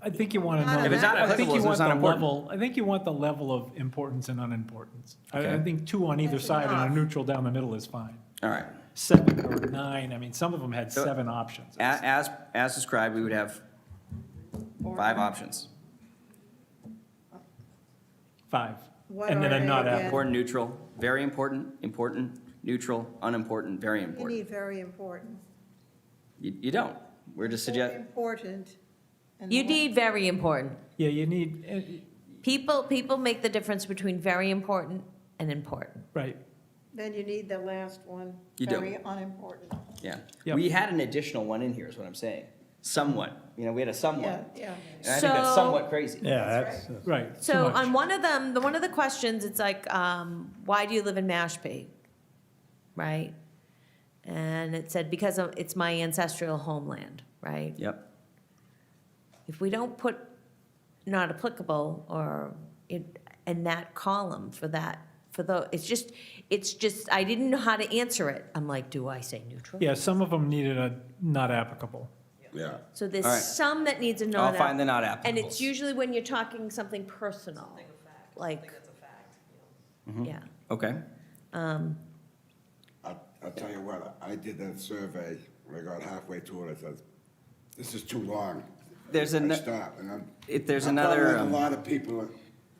I think you want to know. If it's not I think applicable, you it's want not the important. level. I think you want the level of importance and unimportance. I, I Okay. think two on either That's side and enough. a neutral down the middle is fine. All right. Seven or nine, I mean, some of them had So- seven options. A- As, as described, we would have five options. Five. What And then are a they not again? applicable. Important, neutral, very important, important, neutral, unimportant, very You important. need very important. You, you don't. We're just suggest, Important. and You what- need very important. Yeah, you need, eh, People, people make the difference between very important and important. right, Then you need the last one. You do. Very unimportant. yeah. Yep. We had an additional one in here, is what I'm saying. Somewhat, you know, we had a Yeah, somewhat. yeah. And I think that's So- somewhat crazy. Yeah, That's that's, right. too So much. on one of them, the, one of the questions, it's like, um, why do you live in Mashpee? Right? And it said, because of- it's my ancestral homeland, right? Yep. If we don't put not applicable or in, in that column for that, for the, it's just, it's just, I didn't know how to answer it. I'm like, do I say neutral? Yeah, some of them needed a not applicable. Yeah. So there's All right. some that needs a I'll not. find the not applicable. And it's usually when you're talking something personal, like. Mm-hmm. Yeah, Okay. I, I'll tell you what, I did that survey, when I got halfway through it, I said, this is too long. There's I ano- stopped, and I'm. If there's I'm probably another, like um, A lot of people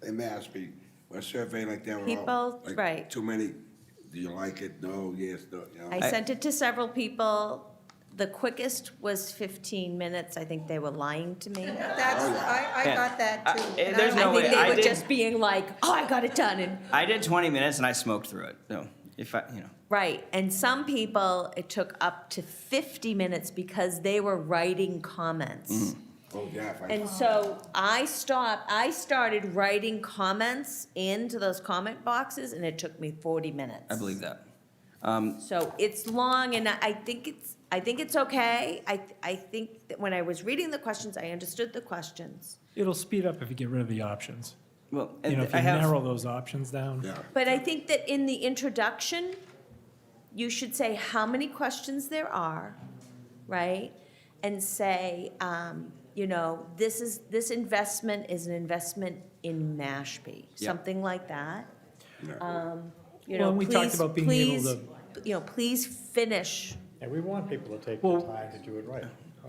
in Mashpee, when surveying like that, were all. People, like, right. Too many, do you like it? No, yes, no, you know. I sent it to several people. The quickest was fifteen minutes. I think they were lying to me. That's, I, I Oh, Yeah. got that I- too. eh, and I there's like no I think way. that. I they were did- just being like, oh, I got it done and, I did 20 minutes and I smoked through it, so if I, you know. right. And some people, it took up to fifty minutes because they were writing comments. Mm-hmm. Oh, yeah, if I- And so I stopped, I started writing comments into those comment boxes and it took me forty minutes. I believe that. So it's long, and I I think it's, I think it's okay. I, I think that when I was reading the questions, I understood the questions. It'll speed up if you get rid of the options. Well, You know, if I you have, narrow those options down. Yeah, But I think that in the introduction, you should say how many questions there are, right? And say, um, you know, this is, this investment is an investment in Mashpee, Yeah. something like that. yeah. You Well, know, and we talked please, about being able please, you know, please finish and we want people to take Well- the time to do it right.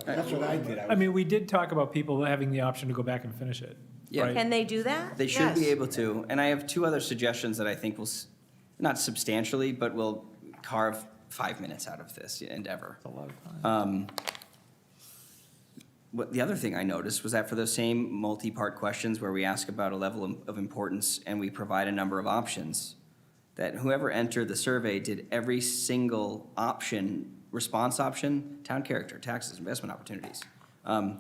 That's what I did. I I was- mean, we did talk about people having the option to go back and finish it. Yeah. right? Can they do that? they should be Yes. able to, and I have two other suggestions that I think will, s- not substantially, but will carve five minutes out of this endeavor. a lot of time. What, the other thing I noticed was that for those same multi-part questions where we ask about a level of- of importance and we provide a number of options, that whoever entered the survey did every single option, response option, town character, taxes, investment opportunities, um,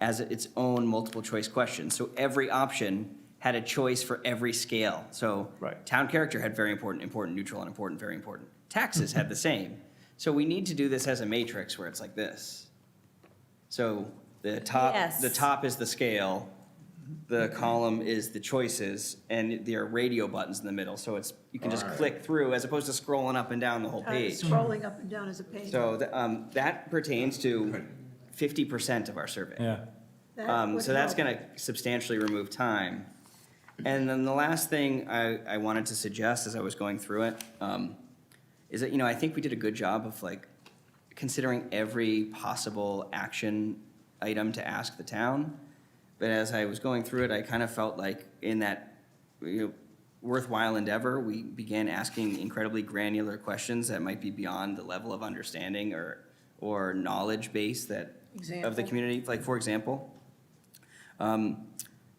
as its own multiple choice question. So every option had a choice for every scale. So Right. town character had very important, important, neutral, unimportant, very important. Taxes had the same. So we need to do this as a matrix where it's like this. So the top, Yes. the top is the scale, the column is the choices, and there are radio buttons in the middle, so it's, you can just Alright. click through as opposed to scrolling up and down the whole Uh, page. Scrolling up and down is a pain. So th- um, that pertains to Good. fifty percent of our survey. Yeah. That Um, would So that's help. gonna substantially remove time. And then the last thing I, I wanted to suggest as I was going through it, um, is that, you know, I think we did a good job of like considering every possible action item to ask the town. But as I was going through it, I kind of felt like in that, you know, worthwhile endeavor, we began asking incredibly granular questions that might be beyond the level of understanding or, or knowledge base that, of the Example. community. Like, for example, um,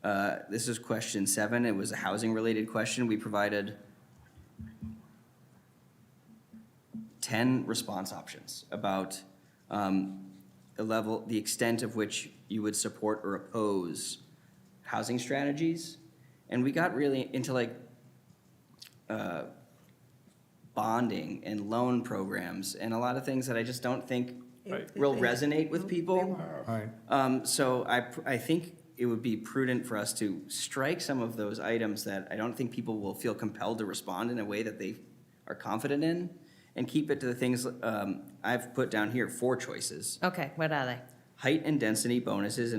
uh, this is question seven. It was a housing-related question. We provided 10 response options about um, the level, the extent of which you would support or oppose housing strategies. And we got really into like uh, bonding and loan programs and a lot of things that I just don't think Right. will resonate with people. Right. Um, So I, pr- I think it would be prudent for us to strike some of those items that I don't think people will feel compelled to respond in a way that they are confident in, and keep it to the things um, I've put down here, four choices. Okay, what are they? Height and density bonuses